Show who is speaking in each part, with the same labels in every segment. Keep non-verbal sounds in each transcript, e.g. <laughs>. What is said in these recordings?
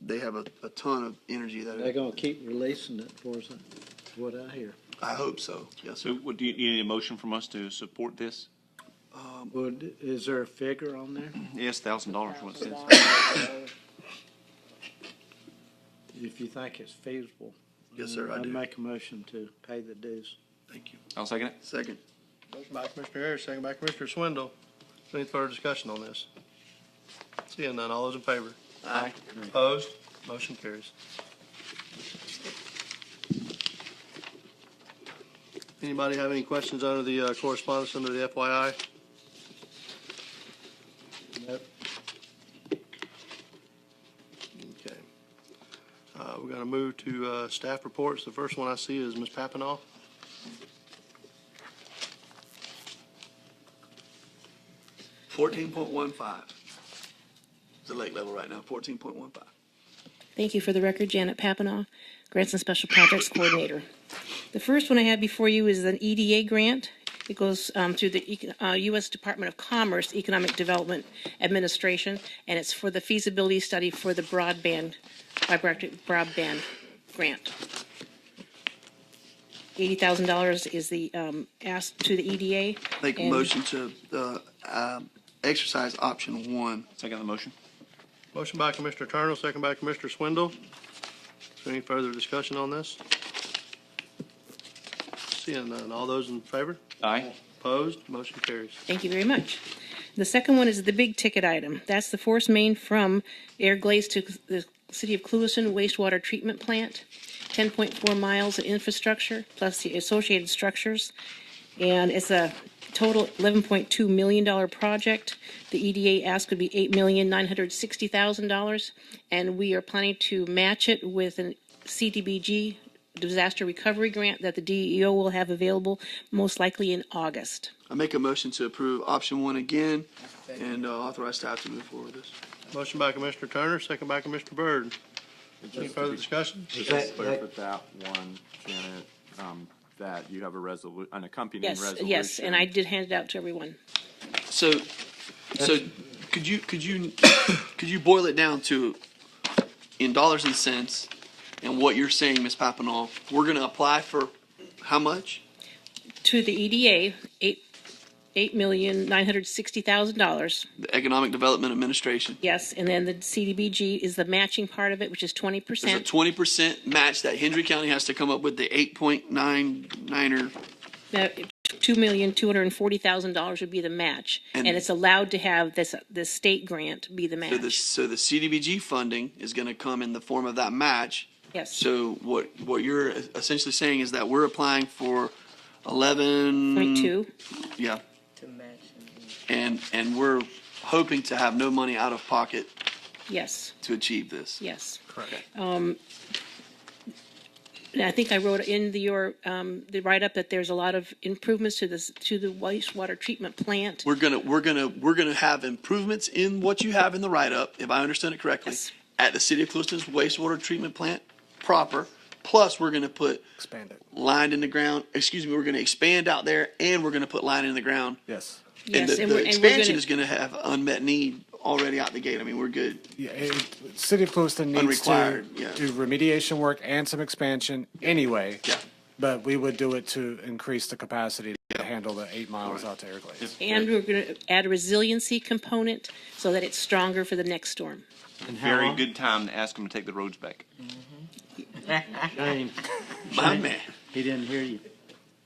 Speaker 1: they have a, a ton of energy
Speaker 2: They're
Speaker 1: that,
Speaker 2: gonna keep releasing it for us, is what I hear.
Speaker 1: I hope so, yes,
Speaker 3: So
Speaker 1: sir.
Speaker 3: what, do you do you need a motion from us to support this? Um,
Speaker 2: Would, is there a figure on there?
Speaker 3: Yes, thousand dollars, what it says.
Speaker 2: If you think it's feasible.
Speaker 1: Yes, sir, I
Speaker 2: I'd
Speaker 1: do.
Speaker 2: make a motion to pay the dues.
Speaker 1: Thank you.
Speaker 3: I'll second it.
Speaker 1: Second,
Speaker 4: Motion by Commissioner Ayers, second by Commissioner Swindle. Is there Any further discussion on this? Seeing none, all those in favor?
Speaker 3: Aye.
Speaker 4: Opposed? Motion carries. Anybody have any questions under the uh, correspondence under the FYI?
Speaker 2: Nope.
Speaker 4: Okay. Uh, We're going to move to uh, staff reports. The first one I see is Ms. Papinoff.
Speaker 1: fourteen point one five. The lake level right now, fourteen point one five.
Speaker 5: Thank you. For the record, Janet Papanoff, Grants and Special Projects Coordinator. The first one I have before you is an EDA grant. It goes um, through the Econ- uh, U.S. Department of Commerce Economic Development Administration, and it's for the feasibility study for the broadband, fiber-optic broadband grant. $80,000 is the um, ask to the EDA.
Speaker 1: Make a
Speaker 5: and-
Speaker 1: motion to, uh, um, exercise option one.
Speaker 3: Second the motion.
Speaker 4: Motion by Commissioner Turner, second by Commissioner Swindle. Is there any further discussion on this? Seeing none, all those in favor?
Speaker 3: Aye.
Speaker 4: Opposed? Motion carries.
Speaker 5: Thank you very much. The second one is the big ticket item. That's the force main from Air Glaze to the City of Cluison wastewater treatment plant, 10.4 miles of infrastructure plus the associated structures. And it's a total $11.2 million project. The EDA ask would be $8,960,000. And we are planning to match it with a CDBG disaster recovery grant that the DEO will have available most likely in August.
Speaker 1: I make a motion to approve option one again and uh, authorize staff to move forward with this.
Speaker 4: Motion by Commissioner Turner, second by Commissioner Byrd. Any further discussion?
Speaker 6: Just clear with that one, Janet, um, that you have a resolu, an accompanying
Speaker 5: Yes,
Speaker 6: resolution.
Speaker 5: yes, and I did hand it out to everyone.
Speaker 1: So, so could you, could you, <coughs> could you boil it down to in dollars and cents and what you're saying, Ms. Papanoff? We're gonna apply for how much?
Speaker 5: To the EDA, eight, eight million, nine hundred sixty thousand dollars,
Speaker 1: The Economic Development Administration.
Speaker 5: yes, and then the CDBG is the matching part of it, which is twenty
Speaker 1: There's a
Speaker 5: percent.
Speaker 1: twenty percent match that Hendry County has to come up with the eight point nine niner.
Speaker 5: Two million, two hundred and forty thousand dollars would be the match,
Speaker 1: And-
Speaker 5: and it's allowed to have this, this state grant be the
Speaker 1: So the,
Speaker 5: match.
Speaker 1: so the CDBG funding is gonna come in the form of that match.
Speaker 5: Yes.
Speaker 1: So what, what you're essentially saying is that we're applying for eleven.
Speaker 5: Point two,
Speaker 1: Yeah. And, and we're hoping to have no money out of pocket
Speaker 5: yes,
Speaker 1: to achieve this.
Speaker 5: yes.
Speaker 1: Correct.
Speaker 5: Um, And I think I wrote in the, your, um, the write-up that there's a lot of improvements to this, to the wastewater treatment plant.
Speaker 1: We're gonna, we're gonna, we're gonna have improvements in what you have in the write-up, if I understand it correctly,
Speaker 5: Yes.
Speaker 1: at the city of Clueston's wastewater treatment plant proper. Plus, we're gonna put
Speaker 6: Expand it.
Speaker 1: line in the ground, excuse me, we're gonna expand out there and we're gonna put line in the ground.
Speaker 6: Yes.
Speaker 1: And
Speaker 5: Yes,
Speaker 1: the,
Speaker 5: and we're-
Speaker 1: the
Speaker 5: and we're
Speaker 1: expansion
Speaker 5: gonna,
Speaker 1: is gonna have unmet need already out the gate. I mean, we're good.
Speaker 7: Yeah, it- City of Clueston needs to
Speaker 1: Unrequired, yeah.
Speaker 7: do remediation work and some expansion anyway.
Speaker 1: Yeah.
Speaker 7: But we would do it to increase the capacity to handle the eight miles out to Air Glaze.
Speaker 5: And we're going to add a resiliency component so that it's stronger for the next storm. <laughs>
Speaker 3: Very good time to ask them to take the roads back.
Speaker 2: Shane,
Speaker 1: My man.
Speaker 2: he didn't hear you.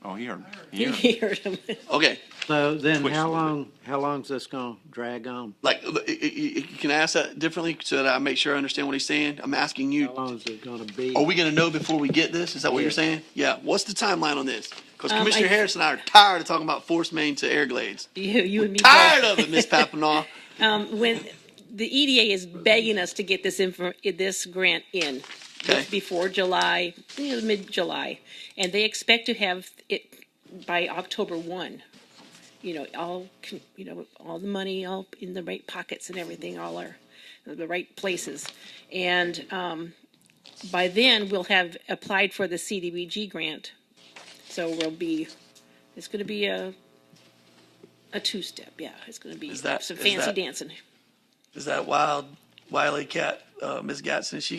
Speaker 3: Oh, he heard me. He
Speaker 5: You
Speaker 3: heard me.
Speaker 5: heard him.
Speaker 1: Okay,
Speaker 2: So then
Speaker 3: Twitched a
Speaker 2: how
Speaker 3: little bit.
Speaker 2: long, how long's this gonna drag on?
Speaker 1: like, uh, i- i- i- can I ask that differently so that I make sure I understand what he's saying? I'm asking you.
Speaker 2: How long is it gonna be?
Speaker 1: Are we gonna know before we get this? Is that what you're saying? Yeah. What's the timeline on this? Because
Speaker 5: Um,
Speaker 1: Commissioner
Speaker 5: I-
Speaker 1: Harris and I are tired of talking about force main to air glades.
Speaker 5: You, you and me
Speaker 1: Tired of
Speaker 5: both. Um,
Speaker 1: it,
Speaker 5: <laughs>
Speaker 1: Miss Papanoff.
Speaker 5: When, the EDA is begging us to get this info, this grant in
Speaker 1: Okay.
Speaker 5: before July, you know, mid-July. And they expect to have it by October one. You know, all, con- you know, all the money, all in the right pockets and everything, all are the right places. And, um, by then, we'll have applied for the CDBG grant. So we'll be, it's gonna be a, a two-step, yeah, it's gonna be
Speaker 1: Is that-
Speaker 5: some
Speaker 1: is
Speaker 5: fancy
Speaker 1: that-
Speaker 5: dancing.
Speaker 1: Is that wild, wily cat, uh, Miss Gatson? She